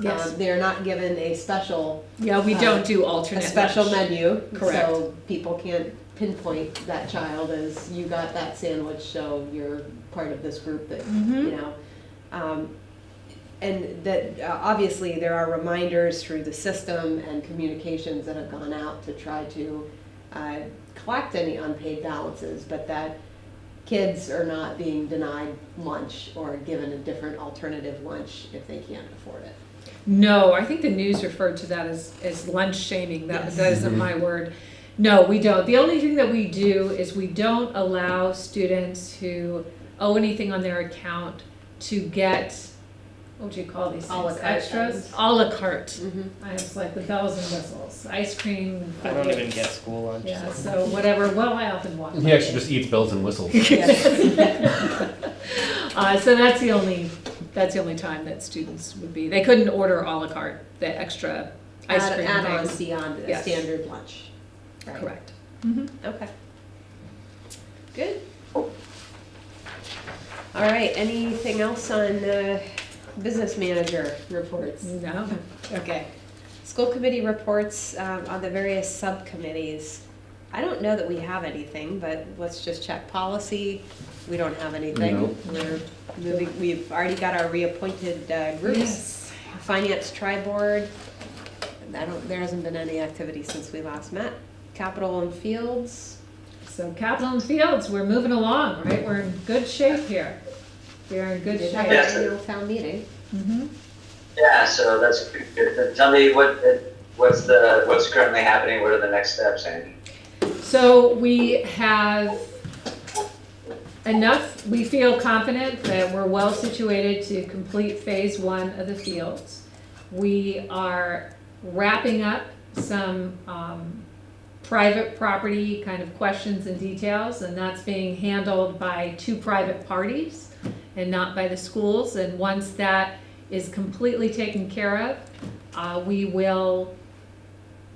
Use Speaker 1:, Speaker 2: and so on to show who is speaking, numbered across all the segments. Speaker 1: Yes.
Speaker 2: Um, they're not given a special
Speaker 1: Yeah, we
Speaker 2: Uh,
Speaker 1: don't do
Speaker 2: a
Speaker 1: alternate.
Speaker 2: special
Speaker 1: lunch.
Speaker 2: menu.
Speaker 1: Correct.
Speaker 2: So people can't pinpoint that child as you got that sandwich, so you're part of this group that
Speaker 1: Mhm.
Speaker 2: you know. Um, and that uh, obviously there are reminders through the system and communications that have gone out to try to uh, collect any unpaid balances, but that kids are not being denied lunch or given a different alternative lunch if they can't afford it.
Speaker 1: No, I think the news referred to that as, as lunch shaming. That,
Speaker 2: Yes.
Speaker 1: that isn't my word. No, we don't. The only thing that we do is we don't allow students who owe anything on their account to get, what do you call these
Speaker 2: A la
Speaker 1: things?
Speaker 2: carte
Speaker 1: Extras?
Speaker 2: items.
Speaker 1: A la carte.
Speaker 2: Mm-hmm.
Speaker 1: I was like the bells and whistles, ice cream.
Speaker 3: I don't even
Speaker 1: cupcakes.
Speaker 3: get school lunch.
Speaker 1: Yeah,
Speaker 3: so-
Speaker 1: so whatever. Well, I often walk.
Speaker 4: He actually just eats bells and whistles.
Speaker 1: Uh, so that's the only, that's the only time that students would be, they couldn't order à la carte, the extra ice
Speaker 2: add,
Speaker 1: cream
Speaker 2: add on
Speaker 1: things.
Speaker 2: beyond a
Speaker 1: Yes.
Speaker 2: standard lunch. Right.
Speaker 1: Correct.
Speaker 2: Okay. Oh. Good. All right. Anything else on uh, business manager reports?
Speaker 1: No,
Speaker 2: Okay. School committee reports um, on the various subcommittees. I don't know that we have anything, but let's just check policy. We don't have anything.
Speaker 4: No.
Speaker 2: We're moving. We've already got our reappointed uh, groups.
Speaker 1: Yes.
Speaker 2: Finance tri board, I don't, there hasn't been any activity since we last met. Capital and Fields,
Speaker 1: so Capitol and Fields, we're moving along, right? We're in good shape here. We are in good
Speaker 2: did have
Speaker 1: shape.
Speaker 2: our annual town meeting.
Speaker 1: Mhm.
Speaker 5: Yeah, so that's good. Tell me what, what's the, what's currently happening, what are the next steps, Andy?
Speaker 1: So we have enough, we feel confident that we're well situated to complete phase one of the fields. We are wrapping up some um, private property kind of questions and details, and that's being handled by two private parties and not by the schools. And once that is completely taken care of, uh, we will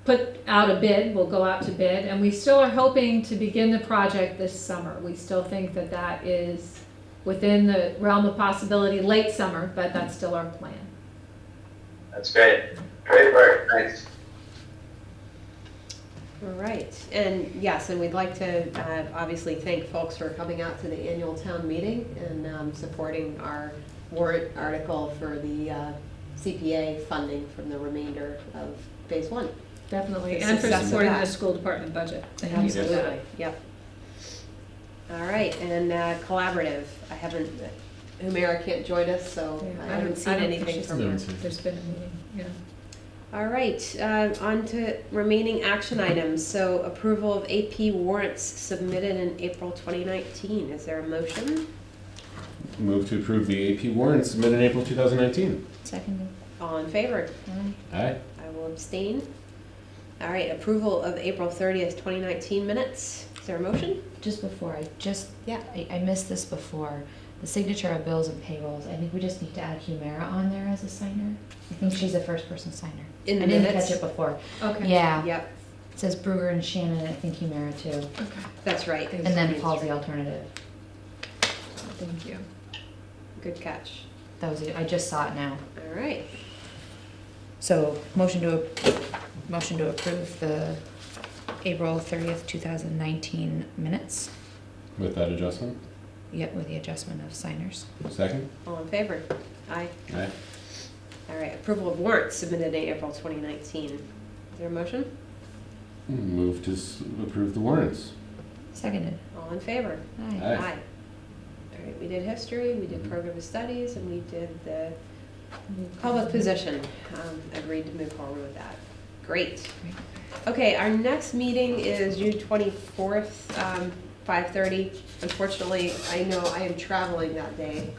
Speaker 1: put out a bid, we'll go out to bid, and we still are hoping to begin the project this summer. We still think that that is within the realm of possibility, late summer, but that's still our plan.
Speaker 5: That's great. Great work, thanks.
Speaker 2: All right, and yes, and we'd like to uh, obviously thank folks for coming out to the annual town meeting and um, supporting our warrant article for the uh, CPA funding from the remainder of phase one.
Speaker 1: Definitely,
Speaker 2: The
Speaker 1: and for
Speaker 2: success of
Speaker 1: supporting the
Speaker 2: that.
Speaker 1: school department budget. Thank you for that.
Speaker 2: Absolutely, yep. All right, and uh, collaborative, I haven't, Humira can't join us, so
Speaker 1: Yeah,
Speaker 2: I
Speaker 1: I
Speaker 2: haven't
Speaker 1: don't-
Speaker 2: seen
Speaker 1: I don't think
Speaker 2: anything
Speaker 1: she's
Speaker 2: from
Speaker 4: No,
Speaker 2: her.
Speaker 4: it's a-
Speaker 1: There's been a meeting, yeah.
Speaker 2: All right, uh, on to remaining action items, so approval of AP warrants submitted in April 2019. Is there a motion?
Speaker 4: Move to approve the AP warrant submitted in April 2019.
Speaker 6: Seconded.
Speaker 2: All in favor?
Speaker 6: uh,
Speaker 4: Aye.
Speaker 2: I will abstain. All right, approval of April 30th, 2019 minutes. Is there a motion?
Speaker 6: Just before, I just,
Speaker 2: Yeah.
Speaker 6: I, I missed this before, the signature of bills and payrolls, I think we just need to add Humira on there as a signer. I think she's the first person signer.
Speaker 2: In the
Speaker 6: I didn't
Speaker 2: minutes?
Speaker 6: catch it before.
Speaker 1: Okay.
Speaker 6: Yeah,
Speaker 2: Yep,
Speaker 6: it says Bruger and Shannon, and I think Humira too.
Speaker 1: Okay,
Speaker 2: that's right.
Speaker 6: And then Paul's the alternative.
Speaker 1: thank you.
Speaker 2: Good catch.
Speaker 6: That was, it. I just saw it now.
Speaker 2: All right.
Speaker 6: So, motion to, ap- motion to approve the April thirtieth, two thousand nineteen minutes.
Speaker 4: With that adjustment.
Speaker 6: Yep, with the adjustment of signers.
Speaker 4: Second.
Speaker 2: All in favor? Aye.
Speaker 4: Aye.
Speaker 2: All right, approval of warrants submitted in April 2019. Is there a motion?
Speaker 4: Move to s- approve the warrants.
Speaker 6: Seconded.
Speaker 2: All in favor?
Speaker 6: Aye.
Speaker 4: Aye.
Speaker 2: All right, we did history, we did program of studies, and we did the public position. Um, Agreed to move forward with that. Great.
Speaker 6: Great.
Speaker 2: Okay, our next meeting is June twenty-fourth, um, five-thirty. Unfortunately, I know I am traveling that day.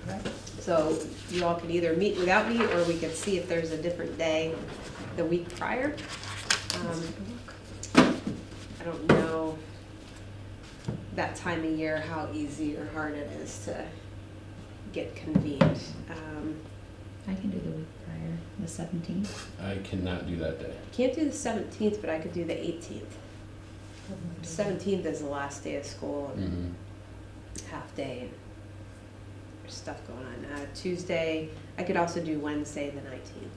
Speaker 2: So you all could either meet without me, or we could see if there's a different day the week prior. Um, I don't know that time of year, how easy or hard it is to get convened. Um,
Speaker 6: I can do the week prior, the seventeenth.
Speaker 4: I cannot do that day.
Speaker 2: Can't do the seventeenth, but I could do the eighteenth. Seventeenth is the last day of school, and
Speaker 4: Mm-hmm.
Speaker 2: half day, and there's stuff going on. Uh, Tuesday, I could also do Wednesday, the nineteenth.